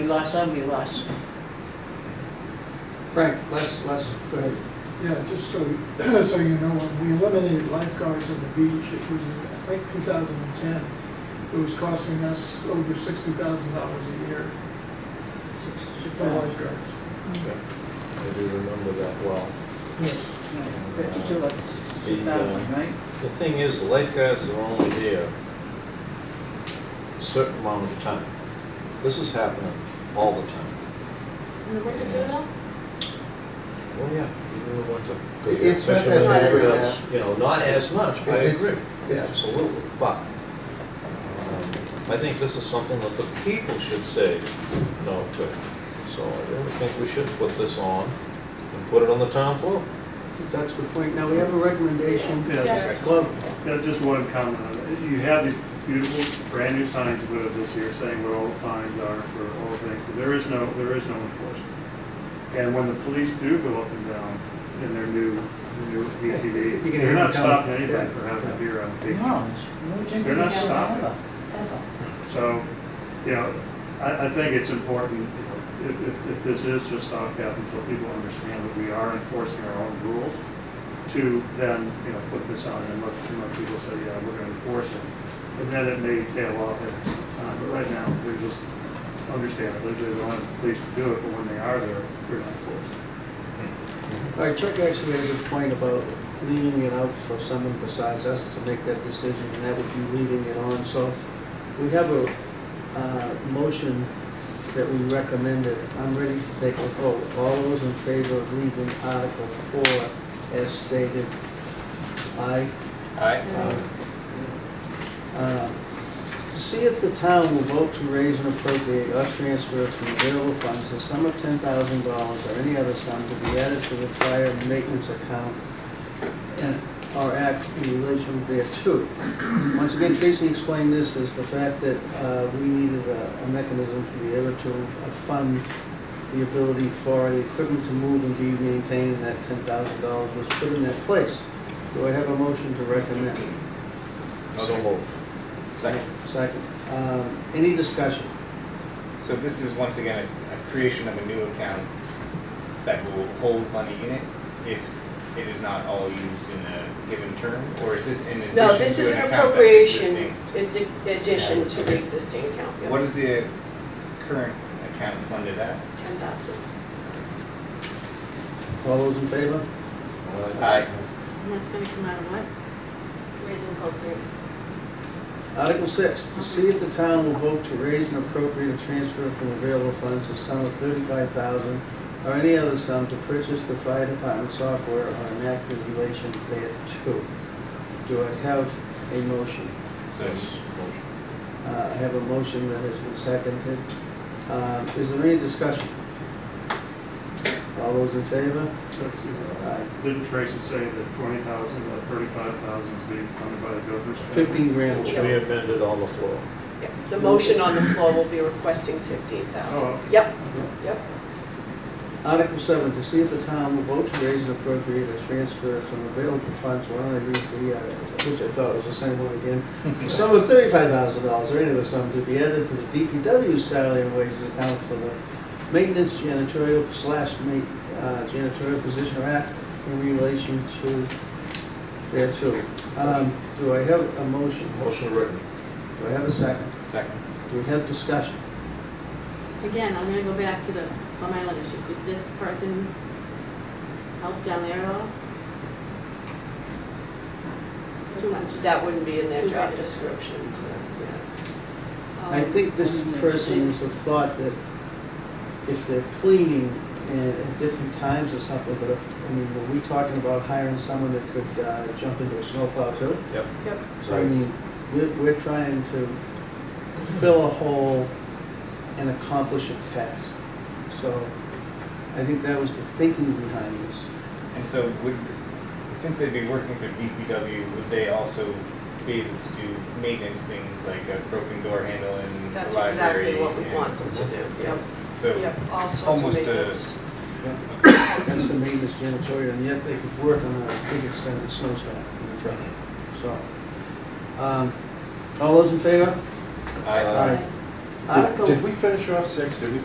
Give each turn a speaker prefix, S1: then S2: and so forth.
S1: lost, I'll be lost.
S2: Frank, let's, let's, go ahead.
S3: Yeah, just so, so you know, when we eliminated lifeguards on the beach, it was, I think, two thousand and ten. It was costing us over sixty thousand dollars a year for lifeguards.
S4: I do remember that well.
S3: Yes.
S1: Fifty-two or sixty thousand, right?
S4: The thing is, the lifeguards are only there a certain amount of time. This is happening all the time.
S5: In the winter too, though?
S4: Oh, yeah, even in the winter.
S6: It's not
S4: Especially
S5: that
S4: when
S5: bad,
S4: they're out, You know, not as much, I
S6: It's-
S4: agree,
S6: yeah.
S4: absolutely, but um, I think this is something that the people should say no to. So I really think we should put this on and put it on the town floor.
S2: That's a good point. Now, we have a recommendation.
S7: Yeah.
S2: Mr. Glover.
S7: Yeah, just one comment on it. You have these beautiful, brand-new signs put up this year saying what all the fines are for all things, but there is no, there is no enforcement. And when the police do go up and down in their new, new
S2: You can
S7: ATV,
S2: hear
S7: they're
S2: them coming.
S7: not stopping
S2: Yeah.
S7: anybody for having a beer on the beach.
S1: No, it's no drinking
S7: They're not
S1: down
S7: stopping.
S1: ever, ever.
S7: So, you know, I, I think it's important, you know, if, if, if this is just stopgap until people understand that we are enforcing our own rules, to then, you know, put this on and let, and let people say, yeah, we're gonna enforce it. And then it may tail off at some time, but right now, they're just, understandably, they don't want the police to do it, but when they are there, we're not enforcing.
S2: All right, Chuck actually made a good point about leaving it out for someone besides us to make that decision, and that would be leaving it on. So we have a uh, motion that we recommended. I'm ready to take a vote. All those in favor of leaving Article 4 as stated? Aye.
S4: Um,
S2: Uh, To see if the town will vote to raise and appropriate or transfer from available funds the sum of ten thousand dollars or any other sum to be added to the fire and maintenance account and, or act in relation thereto. Once again, Tracy explained this as the fact that, uh, we needed a, a mechanism to be able to uh, fund the ability for the equipment to move and be maintained, and that ten thousand dollars was put in that place. Do I have a motion to recommend?
S4: So moved.
S8: Second.
S2: Second. Um, Any discussion?
S8: So this is once again a, a creation of a new account that will hold money in it if it is not all used in a given term, or is this in addition to an
S5: No,
S8: account
S5: this is an
S8: that's
S5: appropriation,
S8: existing?
S5: it's an addition to the existing account, yeah.
S8: What is the current account funded at?
S5: Ten thousand.
S2: All those in favor?
S8: Aye.
S5: And that's gonna come out of what? Raising appropriate.
S2: Article six, to see if the town will vote to raise and appropriate a transfer from available funds the sum of thirty-five thousand or any other sum to purchase the fire department software or enact in relation thereto. Do I have a motion?
S8: So
S2: Uh, I have a motion that has been seconded. Um, Is there any discussion? All those in favor?
S7: So it's- it's-
S2: Aye.
S7: Didn't Tracy say that twenty thousand, uh, thirty-five thousand is being funded by the governor's? budget?
S2: Fifteen
S4: It
S2: grand.
S4: will be amended on the floor.
S5: Yeah. The motion on the floor will be requesting fifteen
S7: Oh.
S5: thousand. Yep, yep.
S2: Article seven, to see if the town will vote to raise and appropriate a transfer from available funds, why don't I read the, uh, which I thought was the same one again. The Sum of thirty-five thousand dollars, or any of the sum to be added to the DPW salary and wages account for the maintenance janitorial slash ma- uh, janitorial position or act in relation to thereto. Um, do I have a motion?
S4: Motion written.
S2: Do I have a second?
S8: Second.
S2: Do we have discussion?
S9: Again, I'm gonna go back to the Plum Island issue. Did this person help down there at all? Too much.
S5: That wouldn't be in their job description, so, yeah.
S9: Oh.
S2: I think this person is the thought that if they're cleaning and at different times or something, but if, I mean, were we talking about hiring someone that could uh, jump into a snowplow too?
S4: Yep.
S5: Yep.
S2: So I mean, we're, we're trying to fill a hole and accomplish a task. So I think that was the thinking behind this.
S8: And so would, since they'd be working through DPW, would they also be able to do maintenance things like a broken door handle in the
S5: That's
S8: library?
S5: exactly what we
S8: and-
S5: want them to do, yep.
S8: So.
S5: Yep, all sorts of
S8: almost a-
S5: maintenance.
S2: That's the maintenance janitorial, and yet they could work on a big extended snowstorm in the truck. So, um, all those in favor?
S8: Aye.
S2: Article
S6: Did we finish off six? Did we